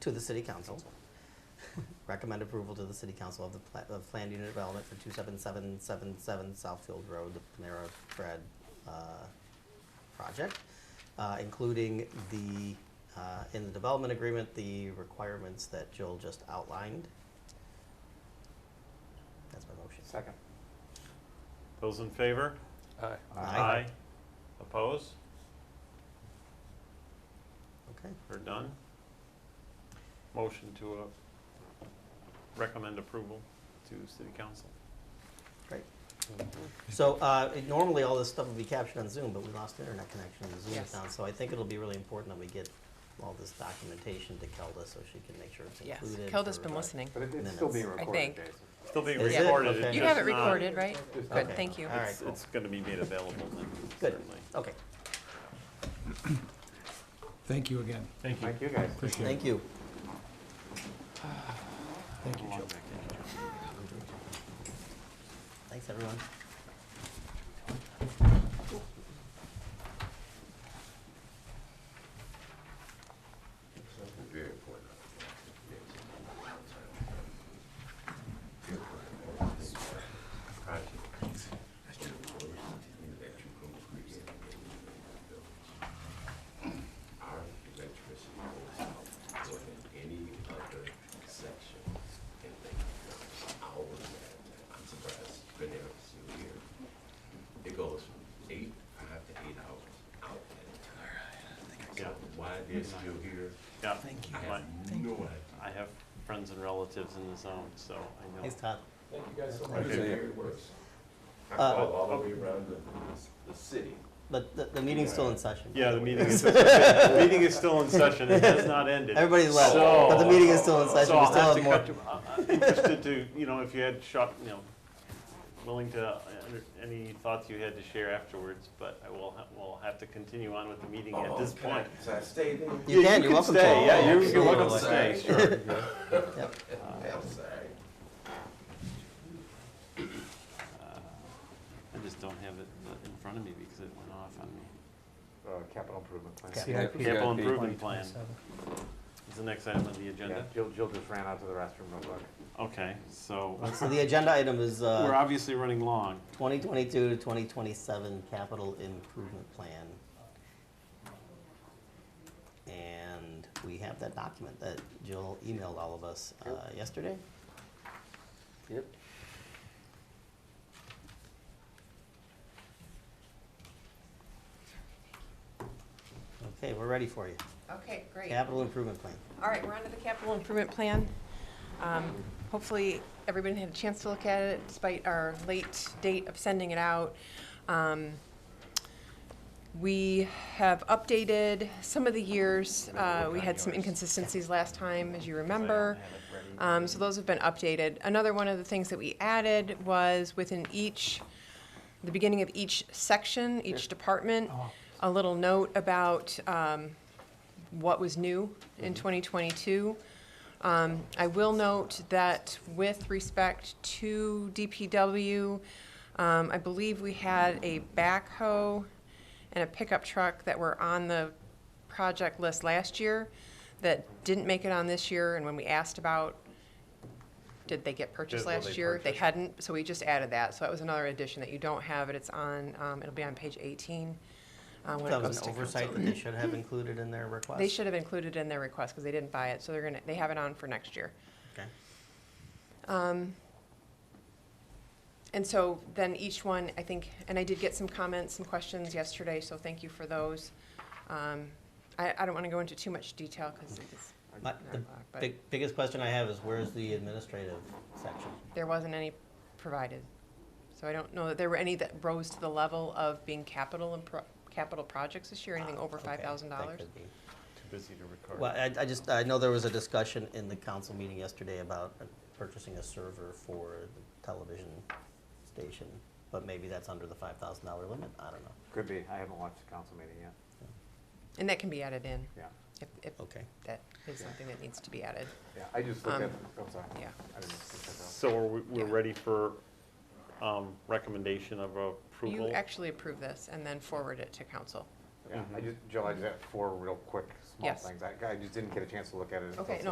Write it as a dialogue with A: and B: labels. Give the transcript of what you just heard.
A: to the city council. Recommend approval to the city council of the pla- of planned unit development for two seven seven seven seven Southfield Road, the Panera Bread, uh, project, uh, including the, uh, in the development agreement, the requirements that Joel just outlined. That's my motion.
B: Second.
C: Those in favor?
B: Aye.
A: Aye.
C: Oppose?
A: Okay,
C: We're done. Motion to uh, recommend approval to city council.
A: great. So, uh, normally all this stuff would be captured on Zoom, but we lost internet connection in the Zoom
D: Yes.
A: account, so I think it'll be really important that we get all this documentation to Kelda so she can make sure it's
D: Yes,
A: included.
D: Kelda's
A: for,
D: been
A: uh,
D: listening.
B: But it- it's still
A: Minutes.
B: being
D: I
B: recorded,
D: think.
B: Jason.
C: Still being
A: Is it?
C: recorded.
A: Okay.
C: it's
D: You have it
C: just not-
D: recorded, right?
B: Just-
D: Good,
A: Okay.
D: thank you.
A: All right.
C: It's, it's gonna be made available then,
A: Good.
C: certainly.
A: Okay,
E: Thank you again.
C: Thank
B: Thank you, guys.
E: Appreciate it.
A: thank you.
E: Thank you, Joe.
A: Thanks, everyone.
F: our electricity goes out more than any other section in Lincoln County. Our, I'm surprised, it's been there since we here. It goes from eight, five to eight hours out at a time. So
C: Yeah.
F: why they're still here,
C: Yeah.
F: I
C: My-
F: have no idea.
C: I have friends and relatives in the zone, so I know.
A: Thanks, Todd.
F: Thank you guys so
C: much. Okay.
F: It works. I
A: Uh,
F: call all the way around the, the city.
A: But the, the meeting's still in session. by
C: Yeah,
A: the
C: the
A: way.
C: meeting is, the meeting is still in session. It has not ended.
A: Everybody left, but the meeting is still in
C: So
A: session. We
C: I'll
A: still have
C: have to
A: more.
C: cut to, I- I'm interested to, you know, if you had shot, you know, willing to, uh, under- any thoughts you had to share afterwards, but I will, ha- we'll have to continue on with the meeting at this
F: Oh, can I-
C: point.
F: Can I stay there?
A: You
C: Yeah,
A: can, you're welcome to. Oh,
C: stay. Yeah, you're, you're
A: Absolutely.
C: welcome to stay, sure.
F: I'm sorry.
C: Uh, I just don't have it uh, in front of me because it went off on me.
B: Uh, Capital improvement plan.
A: Okay.
E: CIP.
C: Capital improvement plan is the next item on the agenda.
B: Yeah, Jill, Jill just ran out to the restroom real quick.
C: Okay, so
A: So the agenda item is,
C: we're
A: uh,
C: obviously running long.
A: twenty twenty-two to twenty twenty-seven capital improvement plan. And we have that document that Jill emailed all of us, uh, yesterday.
B: Yep.
A: Okay, we're ready for you.
D: Okay, great.
A: Capital improvement plan.
D: All right, we're on to the capital improvement plan. Um, Hopefully, everybody had a chance to look at it despite our late date of sending it out. Um, We have updated some of the years. Uh, We had some inconsistencies last time, as you remember. Um, So those have been updated. Another one of the things that we added was within each, the beginning of each section, each department,
A: Oh,
D: a little note about um, what was new in 2022. Um, I will note that with respect to DPW, um, I believe we had a backhoe and a pickup truck that were on the project list last year that didn't make it on this year, and when we asked about, did they get purchased
C: Did- were
D: last
C: they
D: year? They
C: purchased?
D: hadn't, so we just added that, so that was another addition that you don't have, it, it's on, um, it'll be on page 18. uh, when it
A: That was
D: goes
A: an
D: to
A: oversight
D: council.
A: that they should have included in their request.
D: They should have included it in their request, because they didn't buy it, so they're gonna, they have it on for next year. Um,
A: Okay.
D: And so then each one, I think, and I did get some comments and questions yesterday, so thank you for those. Um, I, I don't want to go into too much detail because it's
A: My,
D: not a
A: the
D: lot, but
A: big, biggest question I have is where's the administrative section?
D: there wasn't any provided. So I don't know that there were any that rose to the level of being capital and pro, capital projects this year, anything over
A: Ah, Uh, Okay, that
D: five thousand dollars.
A: could be.
C: Too busy to record.
A: Well, I, I just, I know there was a discussion in the council meeting yesterday about uh, purchasing a server for the television station, but maybe that's under the five thousand dollar limit, I don't know.
B: Could be. I haven't watched the council meeting yet.
D: And that can be added in,
B: Yeah,
D: if, if
A: Okay.
D: that is something that needs to be added,
B: yeah. I just looked at,
D: Um,
B: I'm sorry.
D: yeah.
B: I didn't look at that.
C: So are we, we're
D: Yeah.
C: ready for, um, recommendation of approval?
D: You actually approve this and then forward it to council.
C: Mm-hmm.
B: Yeah, I just, Jill, I just have four real quick, small
D: Yes.
B: things. I, I just didn't get a chance to look at it. until
D: Okay, no,